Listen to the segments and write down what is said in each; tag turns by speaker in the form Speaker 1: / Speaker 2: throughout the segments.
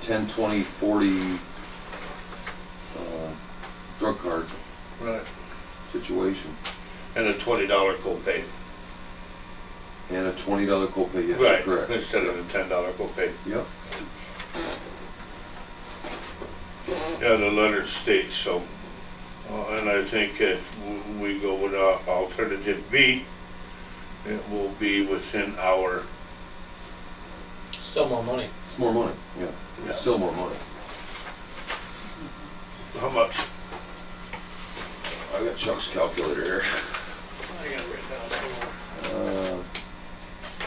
Speaker 1: ten, twenty, forty, uh, drug card
Speaker 2: Right.
Speaker 1: situation,
Speaker 3: And a twenty dollar copay.
Speaker 1: and a twenty dollar copay, yes,
Speaker 3: Right,
Speaker 1: correct.
Speaker 3: instead of a ten dollar copay.
Speaker 1: Yep, Mm.
Speaker 3: Yeah, the letter states so. Uh, And I think if w- we go with uh, alternative B, it will be within our,
Speaker 4: Still more money.
Speaker 1: it's more money, yeah,
Speaker 3: Yeah.
Speaker 1: it's still more money.
Speaker 3: how much?
Speaker 1: I got Chuck's calculator here.
Speaker 4: I got it written down somewhere.
Speaker 1: Uh,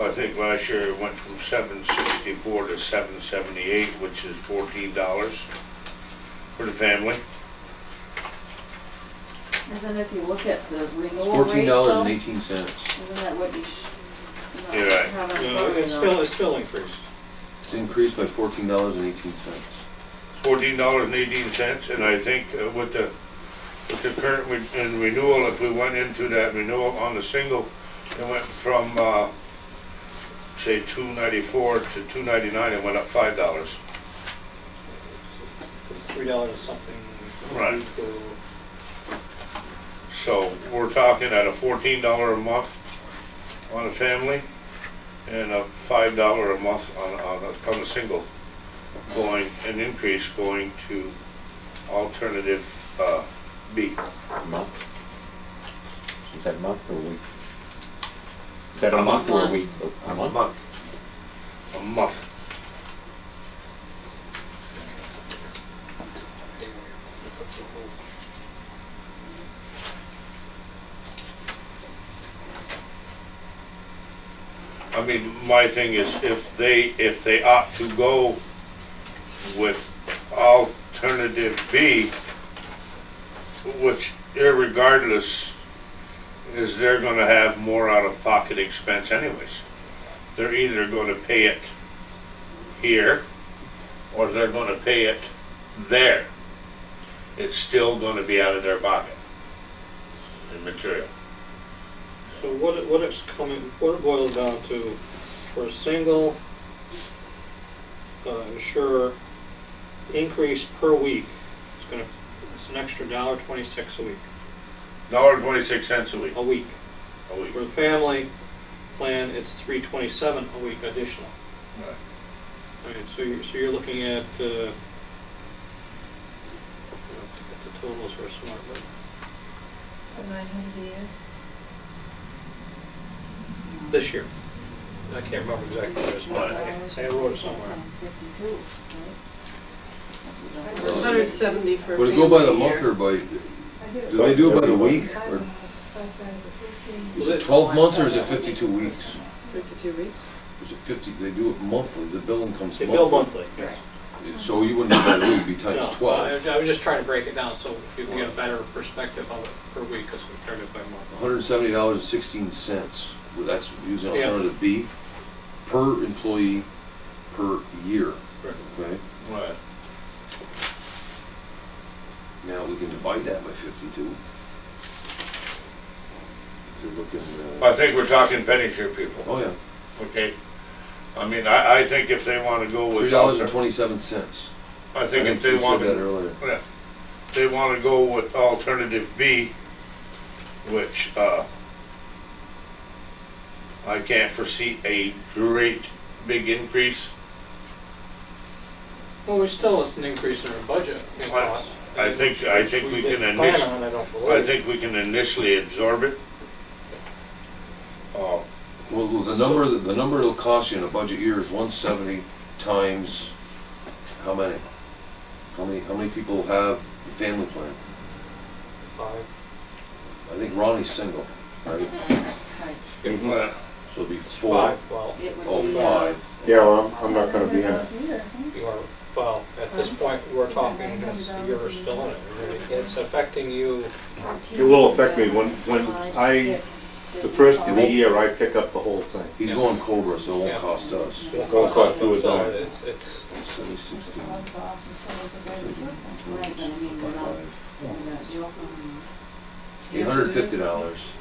Speaker 3: I think last year it went from seven sixty-four to seven seventy-eight, which is fourteen dollars for the family.
Speaker 5: Isn't if you look at the renewal
Speaker 1: Fourteen
Speaker 5: rate
Speaker 1: dollars and
Speaker 5: though,
Speaker 1: eighteen cents,
Speaker 5: isn't that what you sh
Speaker 3: You're
Speaker 5: not
Speaker 3: right.
Speaker 5: have on
Speaker 4: Yeah,
Speaker 5: the
Speaker 4: It's still, it's still increased.
Speaker 1: it's increased by fourteen dollars and eighteen cents.
Speaker 3: fourteen dollars and eighteen cents, and I think uh, with the, with the current re- and renewal, if we went into that renewal on the single, it went from, uh, say, two ninety-four to two ninety-nine, it went up five dollars.
Speaker 4: Three dollars something.
Speaker 3: Right.
Speaker 4: for-
Speaker 3: So we're talking at a fourteen dollar a month on a family, and a five dollar a month on, on, a- on a single, going, an increase going to alternative, uh, B.
Speaker 6: Month? Is that a month or a week? Is that a month or a
Speaker 5: month.
Speaker 6: week? A month?
Speaker 3: a month. I mean, my thing is if they, if they opt to go with alternative B, which irregardless is they're gonna have more out-of-pocket expense anyways they're either gonna pay it here, or they're gonna pay it there. It's still gonna be out of their pocket, in material.
Speaker 4: So what it, what it's coming, what it boils down to, for a single uh, insurer, increase per week, it's gonna, it's an extra dollar twenty-six a week,
Speaker 3: Dollar twenty-six cents a week,
Speaker 4: a week.
Speaker 3: a week.
Speaker 4: For the family plan, it's three twenty-seven a week additional.
Speaker 3: Right.
Speaker 4: I mean, so you're, so you're looking at, uh, I don't know if the totals are smart, but
Speaker 5: Nine hundred a year.
Speaker 4: this year. I can't remember exactly what it's, but I I wrote it somewhere.
Speaker 7: Hundred seventy for
Speaker 1: Would it go by the
Speaker 7: family
Speaker 1: month
Speaker 7: year.
Speaker 1: or by, do they do it by the week, or is it twelve months, or is it fifty-two weeks?
Speaker 7: Fifty-two weeks.
Speaker 1: Is it fifty, they do it monthly, the billing comes
Speaker 4: They
Speaker 1: monthly.
Speaker 4: bill monthly.
Speaker 1: So you wouldn't have that, would be
Speaker 4: No,
Speaker 1: times twelve.
Speaker 4: I I was just trying to break it down so you can get a better perspective of it per week as compared to by month.
Speaker 1: hundred and seventy dollars and sixteen cents, well, that's using
Speaker 4: Yeah.
Speaker 1: alternative B, per employee, per year, okay?
Speaker 3: Right.
Speaker 1: Now, we can divide that by fifty-two. To look in, uh,
Speaker 3: I think we're talking pennies here, people,
Speaker 1: oh yeah,
Speaker 3: okay? I mean, I, I think if they wanna go with.
Speaker 1: three dollars and
Speaker 3: alter-
Speaker 1: twenty-seven cents.
Speaker 3: I think if
Speaker 1: we
Speaker 3: they
Speaker 1: said
Speaker 3: wanna.
Speaker 1: that earlier.
Speaker 3: Yeah, they want to go with alternative B, which, uh, I can't foresee a great big increase.
Speaker 4: Well, we still, it's an increase in our budget in
Speaker 3: I-
Speaker 4: cost.
Speaker 3: I think- I think
Speaker 4: Which
Speaker 3: we
Speaker 4: didn't
Speaker 3: can
Speaker 4: plan
Speaker 3: init-
Speaker 4: on, I don't
Speaker 3: I
Speaker 4: believe.
Speaker 3: think we can initially absorb it. Uh,
Speaker 1: Well, the number, the number it'll cost you in a budget year is one seventy times, how many? How many, how many people have the family plan?
Speaker 4: Five.
Speaker 1: I think Ronnie's single, right?
Speaker 3: well,
Speaker 1: So it'd be four.
Speaker 4: Five, well,
Speaker 5: It would
Speaker 1: Oh,
Speaker 5: be, uh,
Speaker 1: five.
Speaker 6: Yeah, well, I'm I'm not gonna be here.
Speaker 5: here.
Speaker 4: you are, well, at this point, we're talking, it's- you're still in it. really. It's affecting you,
Speaker 6: It will affect me when, when I, the first of the year, I pick up the whole thing.
Speaker 1: He's going Cobra, so it
Speaker 4: Yeah.
Speaker 1: won't cost us.
Speaker 4: it'll
Speaker 6: Don't
Speaker 4: cost
Speaker 6: talk to us
Speaker 4: so
Speaker 6: on it.
Speaker 4: It's, it's,
Speaker 1: Seventy, sixteen,
Speaker 5: Right, but I mean, we're not-
Speaker 1: five.
Speaker 5: we're not joking.
Speaker 1: Eight hundred fifty dollars.